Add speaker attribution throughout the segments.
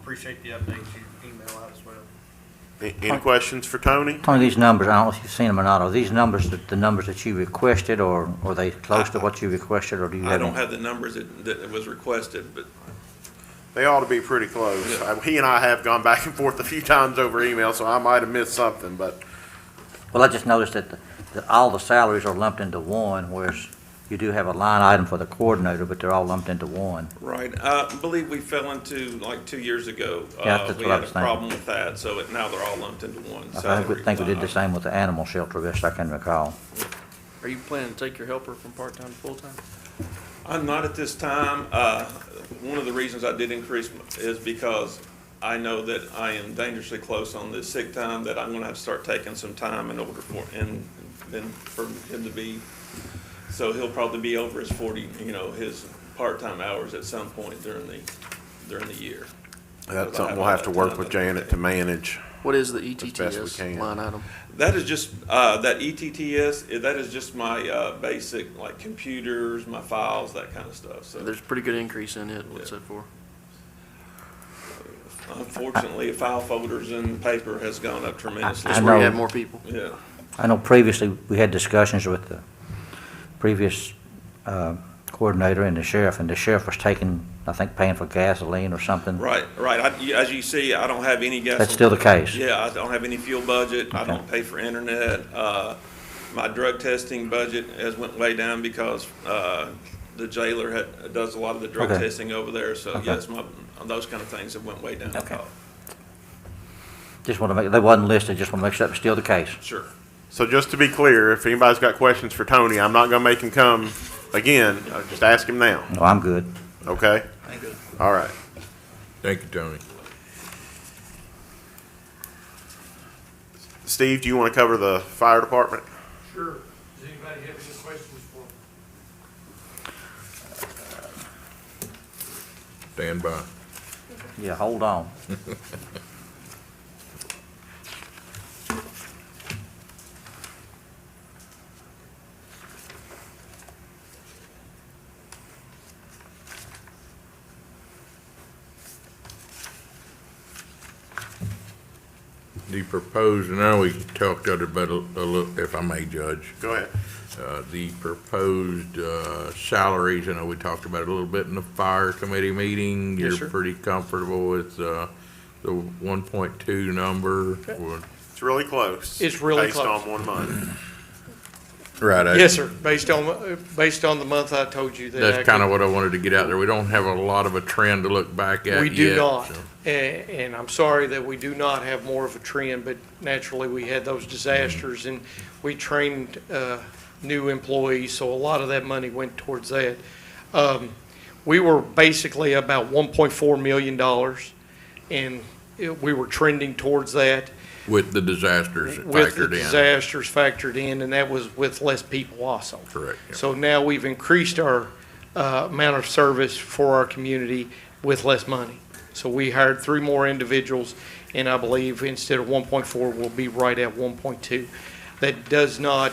Speaker 1: appreciate the updates you email out as well.
Speaker 2: A- Any questions for Tony?
Speaker 3: Tony, these numbers, I don't know if you've seen them or not, are these numbers, that- the numbers that you requested, or are they close to what you requested, or do you
Speaker 4: I
Speaker 3: have?
Speaker 4: don't
Speaker 3: any-
Speaker 4: have the numbers that, that was requested, but
Speaker 2: They ought to be pretty close.
Speaker 4: Yeah.
Speaker 2: Uh, He and I have gone back and forth a few times over email, so I might have missed something, but
Speaker 3: Well, I just noticed that, the- that all the salaries are lumped into one, whereas you do have a line item for the coordinator, but they're all lumped into one.
Speaker 4: Right, Uh, I believe we fell into, like, two years ago.
Speaker 3: Yeah, that's what I
Speaker 4: uh,
Speaker 3: was
Speaker 4: We had a
Speaker 3: thinking.
Speaker 4: problem with that, so it- now they're all lumped into one
Speaker 3: I think, we-
Speaker 4: salary. Uh,
Speaker 3: think we did
Speaker 4: line
Speaker 3: the
Speaker 4: item.
Speaker 3: same with the animal shelter, best I can recall.
Speaker 5: Are you planning to take your helper from part-time to full-time?
Speaker 4: I'm not at this time. Uh, One of the reasons I did increase m- is because I know that I am dangerously close on the sick time, that I'm going to have to start taking some time in order for, and then for him to be, so he'll probably be over his 40, you know, his part-time hours at some point during the, during the year.
Speaker 2: that's something we'll have to work with Janet to manage.
Speaker 5: What is the E
Speaker 2: best we can.
Speaker 5: ETTS line item?
Speaker 4: That is just, uh, that ETTS, eh, that is just my, uh, basic, like, computers, my files, that kind of stuff, so.
Speaker 5: There's a pretty good increase in it, what's
Speaker 4: Yeah.
Speaker 5: that for?
Speaker 4: Unfortunately, file folders and paper has gone up tremendously.
Speaker 5: That's where you
Speaker 3: know.
Speaker 5: have more people.
Speaker 4: Yeah,
Speaker 3: I know previously, we had discussions with the previous uh, coordinator and the sheriff, and the sheriff was taking, I think, paying for gasoline or something.
Speaker 4: right, right. I, you- as you see, I don't have any gas.
Speaker 3: That's still the case?
Speaker 4: Yeah, I don't have any fuel budget. I
Speaker 3: Okay.
Speaker 4: don't pay for internet. Uh, my drug testing budget has went way down because, uh, the jailer had, does a lot of the drug
Speaker 3: Okay.
Speaker 4: testing over there, so
Speaker 3: Okay.
Speaker 4: yes, my, those kind of things have went way down. Uh,
Speaker 3: Okay. Just want to make, they wasn't listed, just want to make sure that was still the case.
Speaker 4: Sure.
Speaker 2: So just to be clear, if anybody's got questions for Tony, I'm not gonna make him come again. I'll Just ask him now,
Speaker 3: No, I'm good.
Speaker 2: okay?
Speaker 1: Thank you.
Speaker 2: All right.
Speaker 6: Thank you, Tony.
Speaker 2: Steve, do you wanna cover the fire department?
Speaker 7: Sure. Does anybody have any questions for me?
Speaker 6: Stand by.
Speaker 3: Yeah, hold on.
Speaker 6: The proposed, and I always talked to her about a a little, if I may judge,
Speaker 2: Go ahead.
Speaker 6: uh, the proposed uh, salaries, I know we talked about it a little bit in the fire committee meeting.
Speaker 4: Yes, sir.
Speaker 6: You're pretty comfortable with uh, the 1.2 number? Well,
Speaker 2: It's really close.
Speaker 7: It's really
Speaker 2: Based
Speaker 7: close.
Speaker 2: on one month.
Speaker 6: Right. I-
Speaker 7: Yes, sir, based on, uh, based on the month I told you that.
Speaker 6: That's kind of what I wanted to get out there. We don't have a lot of a trend to look back at yet.
Speaker 7: We do not,
Speaker 6: so-
Speaker 7: and, and I'm sorry that we do not have more of a trend, but naturally, we had those disasters, and we trained, uh, new employees, so a lot of that money went towards that. Um, we were basically about one point four million dollars, and it- we were trending towards that.
Speaker 6: With the disasters
Speaker 7: with the
Speaker 6: factored in.
Speaker 7: disasters factored in, and that was with less people also.
Speaker 6: Correct. yeah.
Speaker 7: So now we've increased our uh, amount of service for our community with less money. So we hired three more individuals, and I believe instead of 1.4, we'll be right at 1.2. That does not,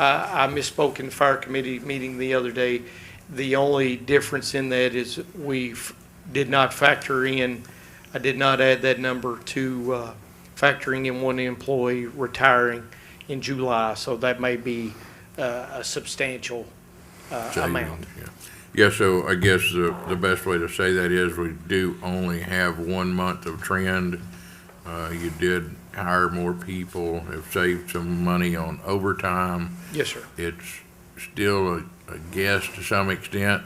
Speaker 7: I I misspoke in the fire committee meeting the other day. The only difference in that is we did not factor in, I did not add that number to uh, factoring in one employee retiring in July, so that may be uh, a substantial uh, amount.
Speaker 6: Yeah. Yeah, so I guess the, the best way to say that is we do only have one month of trend. Uh, you did hire more people, have saved some money on overtime.
Speaker 7: Yes, sir.
Speaker 6: It's still a, a guess to some extent,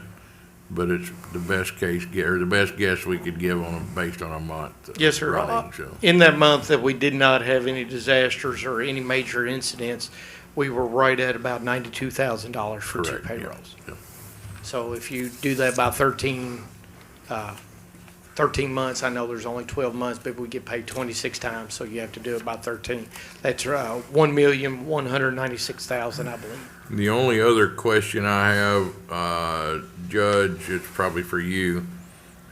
Speaker 6: but it's the best case, gue- or the best guess we could give on, a- based on a month. of
Speaker 7: Yes, sir.
Speaker 6: Running, so.
Speaker 7: In that month that we did not have any disasters or any major incidents, we were right at about ninety-two thousand dollars for two
Speaker 6: Correct. yeah,
Speaker 7: payrolls.
Speaker 6: yeah.
Speaker 7: So if you do that by thirteen, uh, thirteen months, I know there's only twelve months, but we get paid twenty-six times, so you have to do it by thirteen. That's uh, one million, one hundred ninety-six thousand, I believe.
Speaker 6: The only other question I have, uh, Judge, it's probably for you.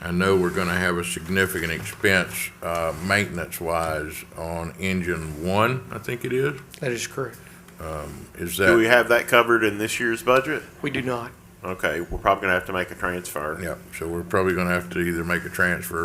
Speaker 6: I know we're gonna have a significant expense, uh, maintenance-wise on engine one, I think it is.
Speaker 7: That is correct.
Speaker 6: Is
Speaker 2: Do we
Speaker 6: that,
Speaker 2: have that covered in this year's budget?
Speaker 7: We do not.
Speaker 2: Okay, we're probably gonna have to make a transfer.
Speaker 6: yeah, so we're probably gonna have to either make a transfer